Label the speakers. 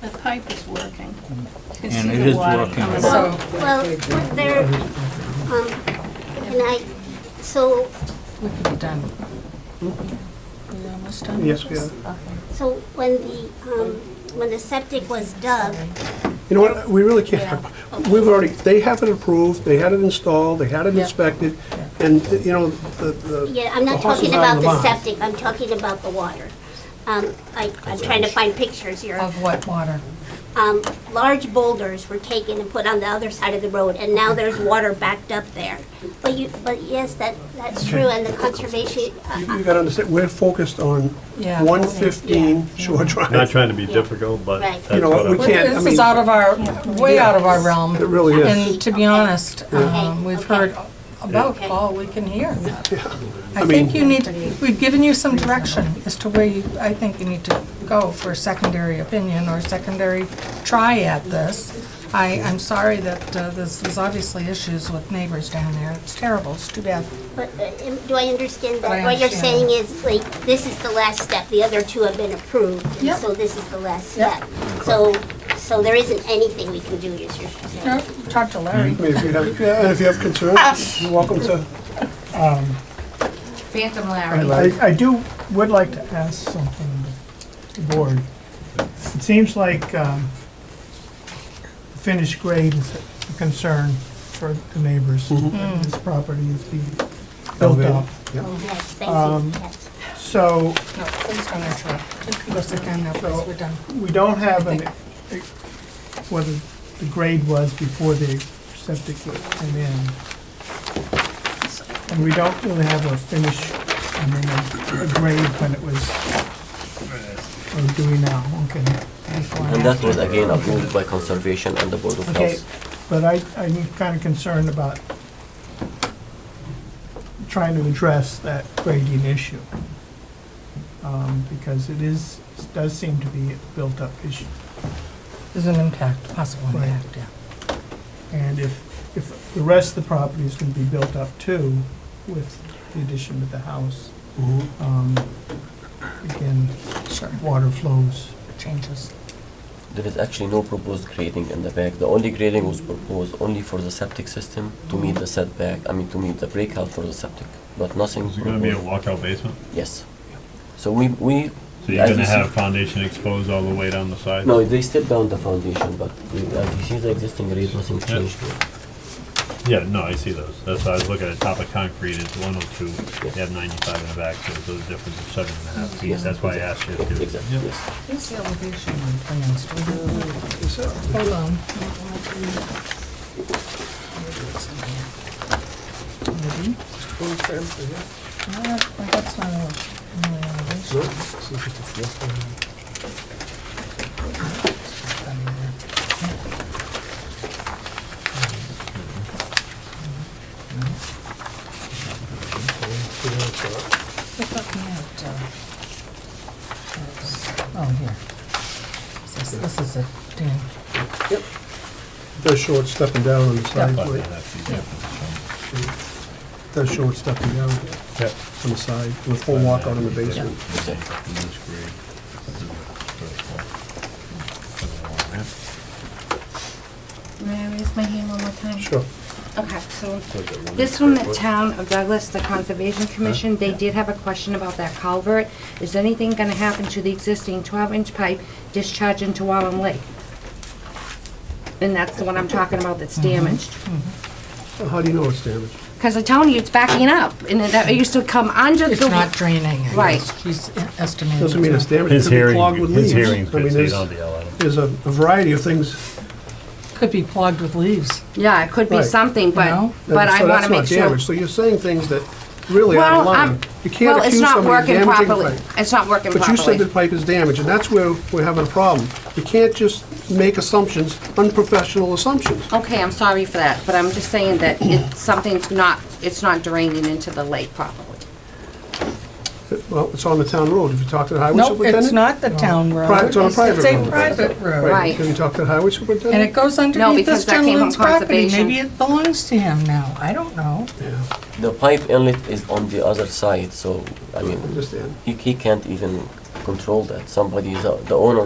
Speaker 1: The pipe is working. You can
Speaker 2: And
Speaker 1: see
Speaker 2: it
Speaker 1: the
Speaker 2: is
Speaker 1: water
Speaker 2: working.
Speaker 1: coming
Speaker 2: So-
Speaker 1: up.
Speaker 3: Well, well, what they're, um, and I, so,
Speaker 4: We could be done. We almost done?
Speaker 5: Yes, we are.
Speaker 3: so when the, um, when the septic was dug,
Speaker 5: You know what, we really can't, we've already, they have it approved, they had it installed, they had it
Speaker 4: Yeah.
Speaker 5: inspected, and, you know, the, the.
Speaker 3: yeah, I'm not
Speaker 5: the horse
Speaker 3: talking
Speaker 5: is out
Speaker 3: about
Speaker 5: of
Speaker 3: the
Speaker 5: barn.
Speaker 3: septic, I'm talking about the water. Um, I, I'm trying to find pictures here.
Speaker 4: Of what water?
Speaker 3: Um, large boulders were taken and put on the other side of the road, and now there's water backed up there. But you, but yes, that, that's true, and the conservation,
Speaker 5: You-
Speaker 3: uh,
Speaker 5: You gotta understand, we're focused on
Speaker 4: Yeah.
Speaker 5: one fifteen Shore
Speaker 6: Not
Speaker 5: Drive.
Speaker 6: trying to be difficult, but
Speaker 3: Right.
Speaker 6: that's
Speaker 5: You know what,
Speaker 6: what
Speaker 5: we
Speaker 6: I'm-
Speaker 5: can't- I
Speaker 4: This is
Speaker 5: mean-
Speaker 4: out of our, way out of our realm.
Speaker 5: It really is.
Speaker 4: And to be honest, um, we've
Speaker 3: Okay.
Speaker 4: heard about
Speaker 3: Okay.
Speaker 4: all we can hear. I
Speaker 5: I
Speaker 4: think
Speaker 5: mean-
Speaker 4: you need, we've given you some direction as to where you, I think you need to go for a secondary opinion or secondary try at this. I, I'm sorry that uh, this is obviously issues with neighbors down there. It's terrible. It's too bad.
Speaker 3: but, uh, am- do I understand
Speaker 4: But I
Speaker 3: that? What you're
Speaker 4: understand.
Speaker 3: saying is, like, this is the last step, the other two have been approved, and
Speaker 4: Yep.
Speaker 3: so this is the last
Speaker 4: Yep.
Speaker 3: step. So, so there isn't anything we can do, is your saying?
Speaker 4: Talk to Larry.
Speaker 5: I mean, if you have, yeah, and if you have concerns, you're welcome to,
Speaker 7: Phantom Larry.
Speaker 8: I, I do, would like to ask something to the board. It seems like, um, finished grade is a concern for the neighbors. This property is being built up.
Speaker 3: Yes, thank you, yes.
Speaker 8: So
Speaker 4: No, please don't interrupt. Go sit down now, please. We're done.
Speaker 8: we don't have an, whether the grade was before the septic came in. And we don't really have a finish, I mean, a- a grade when it was, or do we now, okay?
Speaker 4: Before
Speaker 9: And
Speaker 4: after.
Speaker 9: that was again approved by conservation and the board of
Speaker 8: Okay,
Speaker 9: health.
Speaker 8: but I, I'm kind of concerned about trying to address that grading issue. Um, because it is, does seem to be a built-up issue.
Speaker 4: There's an impact, possible
Speaker 8: Right.
Speaker 4: impact, yeah.
Speaker 8: And if, if the rest of the property is gonna be built up too with the addition of the house, um, again,
Speaker 4: Sure.
Speaker 8: water flows.
Speaker 4: Changes.
Speaker 9: There is actually no proposed grading in the back. The only grading was proposed only for the septic system to meet the setback, I mean to meet the breakout for the septic, but nothing.
Speaker 6: Is it gonna be a
Speaker 9: proposed-
Speaker 6: walkout basement?
Speaker 9: Yes. So we, we.
Speaker 6: So you're
Speaker 9: as
Speaker 6: gonna
Speaker 9: you see-
Speaker 6: have foundation exposed all the way down the side?
Speaker 9: No, they stepped down the foundation, but we- as you see the existing grade, nothing
Speaker 6: Yeah.
Speaker 9: changed.
Speaker 6: Yeah, no, I see those. That's why I was looking at top of concrete, it's one oh two, you have ninety-five in the back, so those are difference of seven and a half feet.
Speaker 9: Yes,
Speaker 6: That's why I asked you if you.
Speaker 9: Exactly,
Speaker 6: Yep.
Speaker 9: yes.
Speaker 4: Who's the elevation on plans? Do we have- Hold on. Maybe. No, that- well, that's not a- really elevation. We're looking at, uh, Oh, here. This is- This is a Dan.
Speaker 5: does show it stepping down on the side,
Speaker 6: Five and a
Speaker 5: wait,
Speaker 6: half feet difference.
Speaker 5: does show it stepping down
Speaker 6: Yep.
Speaker 5: on the side, with full walkout in the basement.
Speaker 9: Exactly.
Speaker 6: And this grade, this is vertical.
Speaker 7: May I raise my hand one more time?
Speaker 5: Sure.
Speaker 7: Okay, so this from the town of Douglas, the Conservation Commission, they did have a question about that culvert. Is anything gonna happen to the existing twelve-inch pipe discharging into Wallen Lake? And that's the one I'm talking about that's
Speaker 5: Mm-hmm.
Speaker 7: damaged.
Speaker 5: How do you know it's damaged?
Speaker 7: Cause I'm telling you, it's backing up, and it that- it used to come under the.
Speaker 4: It's not draining. I
Speaker 7: Right.
Speaker 4: guess. She's estimating.
Speaker 5: Doesn't mean it's damaged, it
Speaker 6: His
Speaker 5: could be clogged
Speaker 6: hearing,
Speaker 5: with
Speaker 6: his
Speaker 5: leaves.
Speaker 6: hearing's
Speaker 5: I
Speaker 6: good,
Speaker 5: mean,
Speaker 6: so you
Speaker 5: there's,
Speaker 6: don't have to yell at him.
Speaker 5: there's a a variety of things, uh,
Speaker 4: Could be plugged with leaves.
Speaker 7: Yeah, it could be
Speaker 5: Right.
Speaker 7: something, but,
Speaker 4: No.
Speaker 5: so
Speaker 7: but I wanna
Speaker 5: that's
Speaker 7: make
Speaker 5: not
Speaker 7: sure.
Speaker 5: damaged, so you're saying things that really are
Speaker 7: Well,
Speaker 5: of
Speaker 7: I'm,
Speaker 5: line. You can't
Speaker 7: well, it's
Speaker 5: accuse
Speaker 7: not
Speaker 5: somebody of
Speaker 7: working
Speaker 5: damaging
Speaker 7: properly.
Speaker 5: pipe.
Speaker 7: It's not working
Speaker 5: But
Speaker 7: properly.
Speaker 5: you said the pipe is damaged, and that's where we're having a problem. You can't just make assumptions, unprofessional assumptions.
Speaker 7: Okay, I'm sorry for that, but I'm just saying that it, something's not, it's not draining into the lake properly.
Speaker 5: Well, it's on the town road, if you talk to the highway
Speaker 4: No,
Speaker 5: superintendent.
Speaker 4: it's not the town road.
Speaker 5: Pri- it's on a private
Speaker 4: It's a
Speaker 5: road.
Speaker 4: private road.
Speaker 7: Right.
Speaker 5: Right, can you talk to the highway
Speaker 4: And it
Speaker 5: superintendent?
Speaker 4: goes underneath
Speaker 7: because
Speaker 4: this
Speaker 7: that came from
Speaker 4: gentleman's property.
Speaker 7: conservation.
Speaker 4: Maybe it belongs to him now. I don't know.
Speaker 9: The pipe inlet is on the other side, so, I mean,
Speaker 5: Understand.
Speaker 9: he, he can't even control that. Somebody, is out- the owner